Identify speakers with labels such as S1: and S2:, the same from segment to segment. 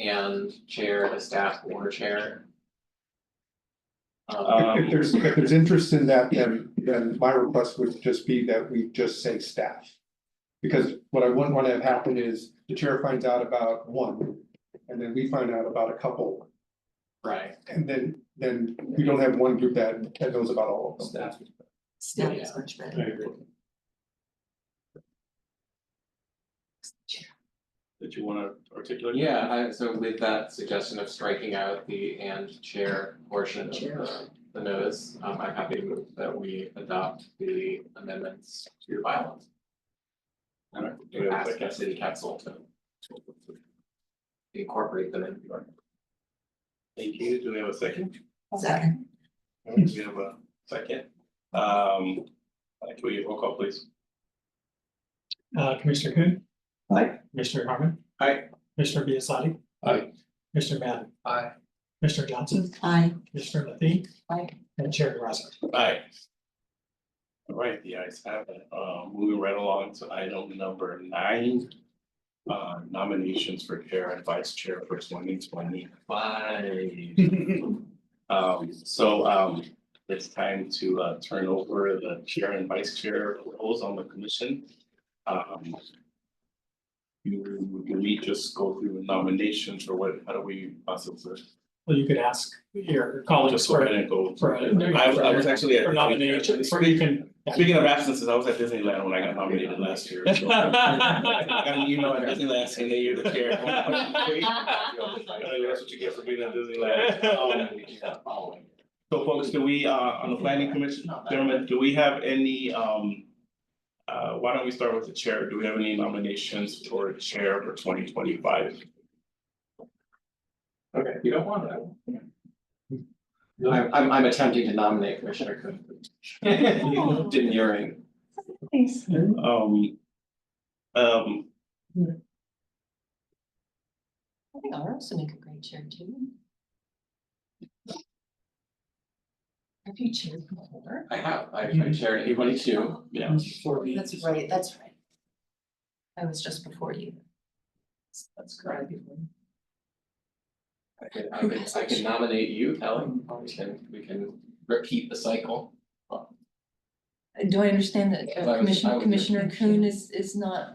S1: and chair to staff or chair. Um,
S2: If
S3: Um,
S2: there's, if there's interest in that, then, then my request would just be that we just say staff. Because what I wouldn't want to have happen is the chair finds out about one, and then we find out about a couple.
S1: right,
S2: And then, then we don't have one group that, that knows about all of them.
S4: Staff is much better.
S3: that you wanna articulate?
S1: yeah, I, so with that suggestion of striking out the and chair portion of
S4: Chair.
S1: the, the notice, um, I'm happy to move that we adopt the amendments to the bylaws.
S3: Alright.
S1: To ask the city council to incorporate them into your.
S3: Thank you, do we have a second?
S4: Second,
S3: All right, We have a second, um, uh, can we roll call please?
S5: Uh, Commissioner Coon.
S3: Aye.
S5: Commissioner Harmon.
S1: Aye.
S5: Commissioner Biassadi.
S3: Aye.
S5: Commissioner Madden.
S1: Aye.
S5: Commissioner Johnson.
S4: aye.
S5: Commissioner Matheny.
S4: Aye.
S5: And Chair DeRosa.
S3: Aye. All right, the ayes have it, uh, moving right along to item number nine. Uh, nominations for chair and vice chair for twenty twenty five. Um, so, um, it's time to, uh, turn over the chair and vice chair roles on the commission. Um. You, can we just go through the nominations or what, how do we possibly?
S5: Well, you could ask your colleagues
S3: Just go
S5: for
S3: ahead and go.
S5: for-
S3: I, I was actually at.
S5: for nomination, for you can.
S3: Speaking of absences, I was at Disneyland when I got nominated last year. so- I got an email at Disneyland saying that you're the chair. That's what you get for being at Disneyland. Um,
S1: Following.
S3: So folks, do we, uh, on the planning commission, gentlemen, do we have any, um. Uh, why don't we start with the chair? Do we have any nominations for chair for twenty twenty five?
S1: Okay, you don't want it. I won't. I'm, I'm attempting to nominate Commissioner Coon. Demurring.
S4: Thanks.
S3: Um. Um,
S4: I think ours would make a great chair too. Have you chaired before?
S1: I have, I, I chaired A twenty-two.
S3: yeah,
S4: That's right, that's right. I was just before you.
S1: That's correct. I could, I could, I could nominate you, Kelly, we can, we can repeat the cycle.
S6: Uh, Do I understand that
S1: Well, I
S6: uh,
S1: was- I
S6: Commissioner, Commissioner
S1: was-
S6: Kuhn is, is not,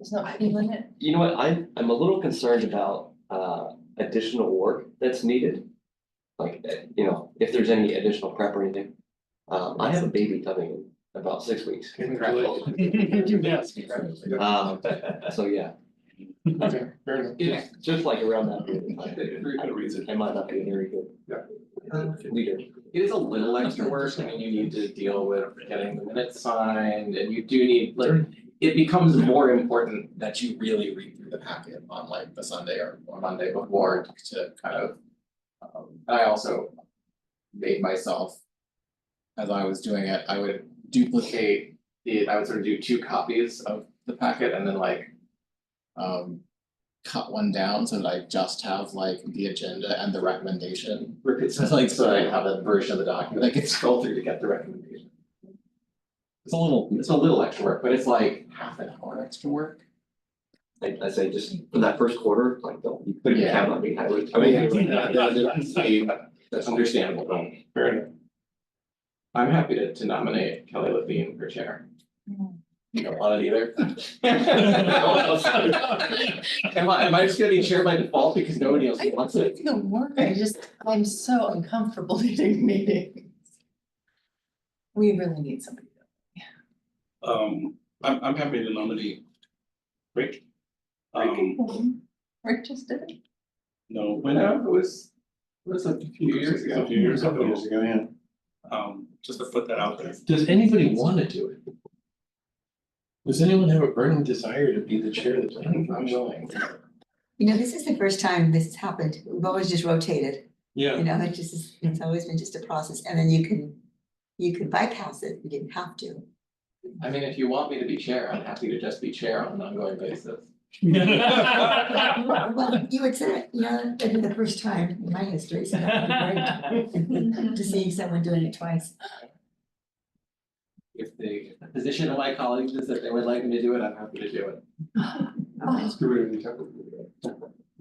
S6: is not feeling it?
S7: You know what, I'm, I'm a little concerned about, uh, additional work that's needed. Like, eh, you know, if there's any additional prep or anything. Um, I have a baby coming in about six weeks,
S1: Congratulations. Yes, congratulations.
S7: um, so yeah,
S2: Okay, fair enough.
S1: It's,
S7: just like around that period of time.
S3: very good reason.
S7: I might not be a very good. Leader,
S1: it is a little extra work, I mean, you need to deal with getting the minutes signed, and you do need, like, it becomes more important that you really read through the packet on like the Sunday or or Monday before to kind of. Um, and I also made myself, as I was doing it, I would duplicate the, I would sort of do two copies of the packet and then like. Um, cut one down so that I just have like the agenda and the recommendation. So like, so I have a version of the document I can scroll through to get the recommendation. It's a little, it's a little extra work, but it's like half an hour extra work.
S7: I, I say just for that first quarter, like, don't, you couldn't
S1: Yeah.
S7: count on me, I would.
S1: I mean, that- that- that's a- that's understandable, but fair enough. I'm happy to to nominate Kelly Levine for chair. You don't want it either? No one else- Am I, am I just gonna be chair by default because nobody else wants it?
S4: The work, I just, I'm so uncomfortable leading meetings. We really need somebody.
S3: Um, I'm, I'm happy to nominate Rick. Um,
S4: Rick just did it.
S3: no, when,
S1: When I was, was it a few years ago?
S3: A few years ago.
S2: yeah.
S3: um, just to put that out there.
S8: Does anybody wanna do it? Does anyone have a burning desire to be the chair of the planning
S1: I'm
S8: commission?
S1: willing.
S9: You know, this is the first time this has happened. We've always just rotated,
S8: Yeah,
S9: you know, it just is, it's always been just a process and then you can, you can bypass it. You didn't have to.
S1: I mean, if you want me to be chair, I'm happy to just be chair on an ongoing basis.
S9: Well, you would say, it, you know, this is the first time in my history, so that would be great. To seeing someone doing it twice.
S1: If the position of my colleagues is that they would like me to do it, I'm happy to do it.
S2: Let's do it anytime.